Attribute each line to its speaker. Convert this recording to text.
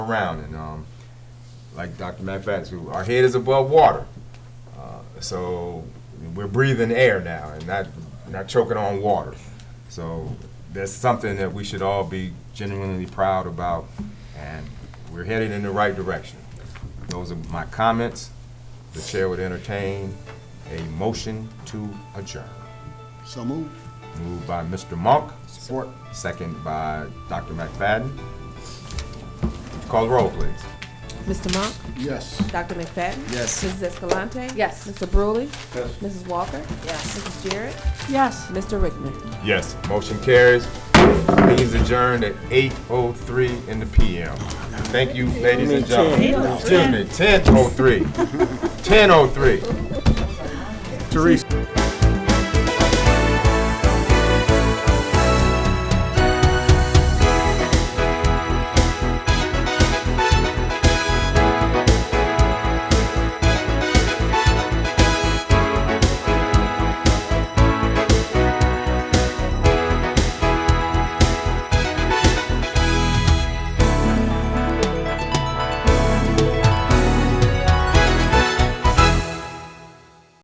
Speaker 1: around and um, like Dr. Matt Fattis, we- our head is above water. Uh, So we're breathing air now and not, not choking on water. So that's something that we should all be genuinely proud about and we're headed in the right direction. Those are my comments. The chair would entertain a motion to adjourn.
Speaker 2: So move.
Speaker 1: Moved by Mr. Monk,
Speaker 2: Support.
Speaker 1: second by Dr. McFadden. Call the roll, please.
Speaker 3: Mr. Monk?
Speaker 2: Yes.
Speaker 3: Dr. McFadden?
Speaker 1: Yes.
Speaker 3: Mrs. Escalante?
Speaker 4: Yes.
Speaker 3: Mr. Brewley? Yes. Mrs. Walker? Yes. Mrs. Jarrett? Yes. Mr. Rickman?
Speaker 1: Yes, motion carries. Meeting's adjourned at eight oh three in the PM. Thank you, ladies and gentlemen. Excuse me, ten oh three. Ten oh three.
Speaker 2: Teresa.